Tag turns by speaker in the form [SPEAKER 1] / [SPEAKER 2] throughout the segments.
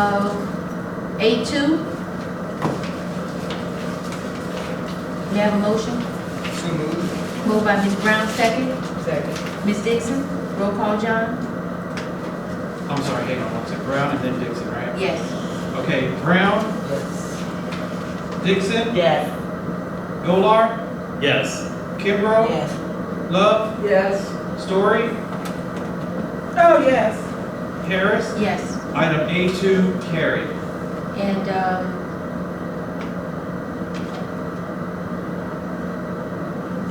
[SPEAKER 1] Uh, A2. May I have a motion?
[SPEAKER 2] So moved.
[SPEAKER 1] Moved by Ms. Brown, second.
[SPEAKER 2] Second.
[SPEAKER 1] Ms. Dixon, roll call, John?
[SPEAKER 3] I'm sorry, hang on one second. Brown and then Dixon, right?
[SPEAKER 1] Yes.
[SPEAKER 3] Okay, Brown,
[SPEAKER 2] Yes.
[SPEAKER 3] Dixon,
[SPEAKER 2] Yes.
[SPEAKER 3] Golar,
[SPEAKER 4] Yes.
[SPEAKER 3] Kimbrough, Love,
[SPEAKER 2] Yes.
[SPEAKER 3] Story,
[SPEAKER 2] Oh, yes.
[SPEAKER 3] Harris.
[SPEAKER 1] Yes.
[SPEAKER 3] Item A2 carried.
[SPEAKER 1] And, um,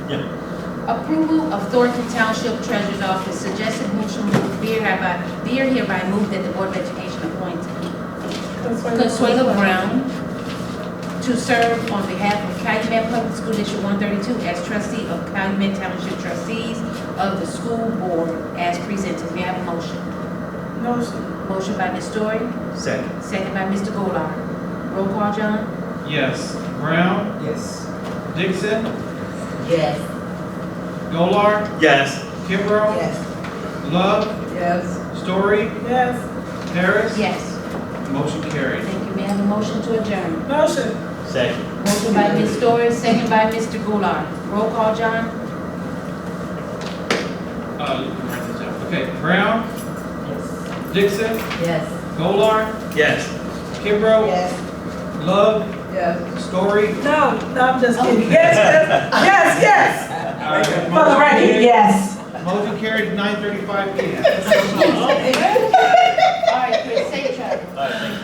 [SPEAKER 4] Yeah.
[SPEAKER 1] approval of Thornton Township Treasurer's Office suggested motion will be hereby, be hereby moved that the Board of Education appoint Consuelo Brown to serve on behalf of Calumet Public School District 132 as trustee of Calumet Township Trustees of the School Board as presented. May I have a motion?
[SPEAKER 2] Motion.
[SPEAKER 1] Motion by Ms. Story,
[SPEAKER 4] Second.
[SPEAKER 1] second by Mr. Golar. Roll call, John?
[SPEAKER 3] Yes. Brown,
[SPEAKER 2] Yes.
[SPEAKER 3] Dixon,
[SPEAKER 2] Yes.
[SPEAKER 3] Golar,
[SPEAKER 4] Yes.
[SPEAKER 3] Kimbrough,
[SPEAKER 2] Yes.
[SPEAKER 3] Love,
[SPEAKER 2] Yes.
[SPEAKER 3] Story,
[SPEAKER 2] Yes.
[SPEAKER 3] Harris.
[SPEAKER 1] Yes.
[SPEAKER 3] Motion carried.
[SPEAKER 1] Thank you. May I have a motion to adjourn?
[SPEAKER 2] Motion.
[SPEAKER 4] Second.
[SPEAKER 1] Motion by Ms. Story, second by Mr. Golar. Roll call, John?
[SPEAKER 3] Uh, you can write this down. Okay, Brown,
[SPEAKER 2] Yes.
[SPEAKER 3] Dixon,
[SPEAKER 2] Yes.
[SPEAKER 3] Golar,
[SPEAKER 4] Yes.
[SPEAKER 3] Kimbrough,
[SPEAKER 2] Yes.
[SPEAKER 3] Love,
[SPEAKER 2] Yes.
[SPEAKER 3] Story.
[SPEAKER 5] No, no, I'm just kidding. Yes, yes, yes, yes.
[SPEAKER 3] uh,
[SPEAKER 5] For the record, yes.
[SPEAKER 3] Motion carried, 9:35 PM.
[SPEAKER 1] All right, Chris, say it, Charlie.
[SPEAKER 4] All right, thank you.